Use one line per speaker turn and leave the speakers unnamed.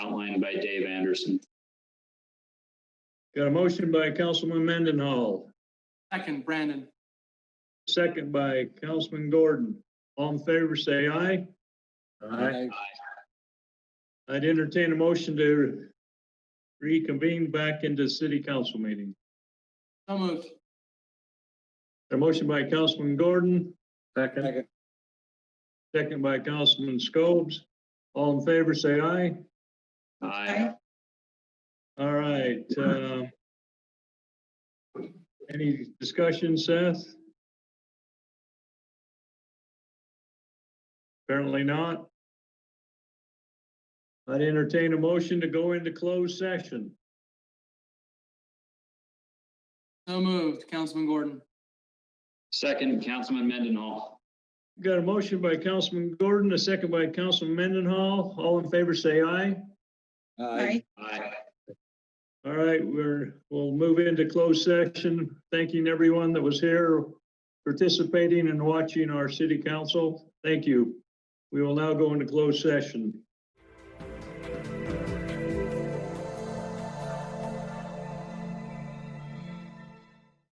and by Dave Anderson.
Got a motion by Councilman Mendenhall,
Second, Brandon.
second by Councilman Gordon. All in favor, say aye. I'd entertain a motion to reconvene back into city council meeting.
So moved.
A motion by Councilman Gordon.
Second.
Second by Councilman Scobes. All in favor, say aye.
Aye.
All right, uh, any discussion, Seth? Apparently not. I'd entertain a motion to go into closed session.
So moved, Councilman Gordon.
Second, Councilman Mendenhall.
Got a motion by Councilman Gordon, a second by Councilman Mendenhall. All in favor, say aye.
Aye.
Aye.
All right, we're, we'll move into closed session, thanking everyone that was here participating and watching our city council. Thank you. We will now go into closed session.